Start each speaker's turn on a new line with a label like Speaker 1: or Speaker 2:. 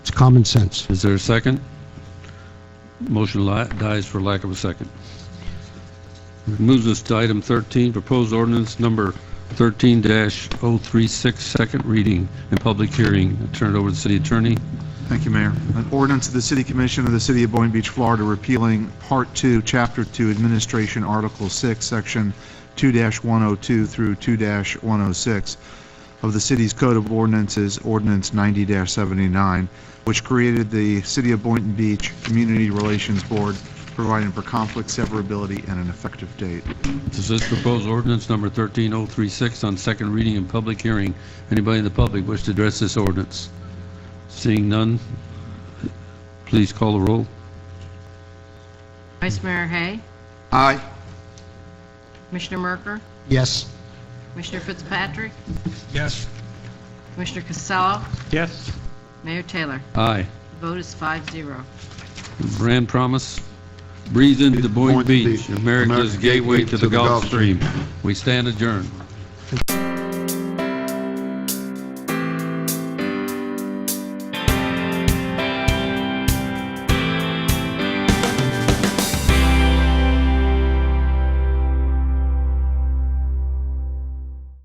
Speaker 1: common sense.
Speaker 2: Is there a second? Motion li- dies for lack of a second. Moves us to item 13, proposed ordinance number 13-036, second reading and public hearing. I Turn it over to the city attorney.
Speaker 3: Thank you, Mayor. An ordinance of the City Commission of the City of Boynton Beach, Florida, repealing Part 2, Chapter 2, Administration, Article 6, Section 2-102 through 2-106 of the city's Code of Ordinances, Ordinance 90-79, which created the City of Boynton Beach Community Relations Board, providing for conflict severability and an effective date.
Speaker 2: This is proposed ordinance number 13036 on second reading and public hearing. Anybody in the public wish to address this ordinance? Seeing none, please call the roll.
Speaker 4: Vice Mayor Hay,
Speaker 3: Aye.
Speaker 4: Commissioner Merker,
Speaker 1: Yes.
Speaker 4: Commissioner Fitzpatrick,
Speaker 5: Yes.
Speaker 4: Commissioner Casella,
Speaker 5: Yes.
Speaker 4: Mayor Taylor.
Speaker 2: Aye.
Speaker 4: The vote is five zero.
Speaker 2: Brand Promise, Breathe into Boynton Beach, America's gateway to the Gulf Stream. We stand adjourned.